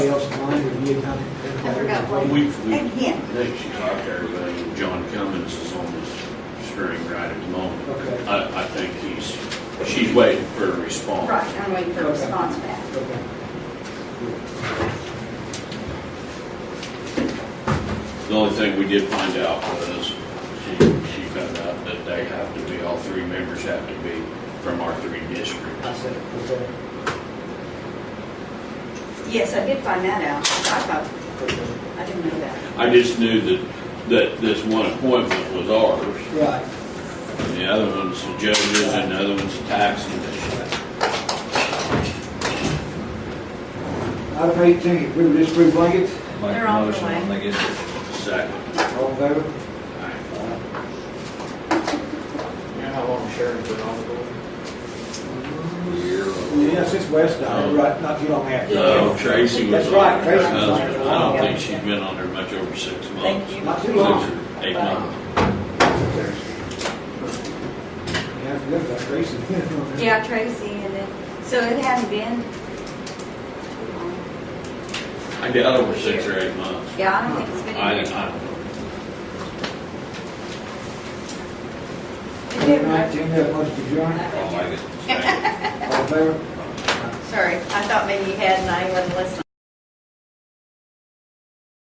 get how to. I forgot A what. week from Again. today, she talked to everybody, John Cummins is on the string right at the moment. Okay, I, I think he's, she's waiting for a response. Right, I'm waiting for a response back. okay. The only thing we did find out was, she, she found out that they have to be, all three members have to be from our three districts. I said, okay, Yes, I did find that out. I thought, okay. I didn't know that. I just knew that, that this one appointment was ours, Right, and the other one's the judges, and the other one's the tax commission. item eighteen, approve this free blanket, Make They're a on the motion way. when they get there. Second. all in favor? You know how long Sharon's been on the board? Yeah, since West died, right, not too long after. No, Uh, Tracy was That's on right, there. Tracy Her was on husband. there. I don't think she's been on there much over six Thank months. you. Not too Six long. or eight months. Yeah, I forgot about Tracy. Yeah, Tracy, and then, so it hadn't been. I doubt over six or eight months. Yeah, I don't think it's been. I, I don't know. It Item didn't matter. Nineteen, have much to adjourn, I'll make it. Second. all in favor? Sorry, I thought maybe you had and I wasn't listening.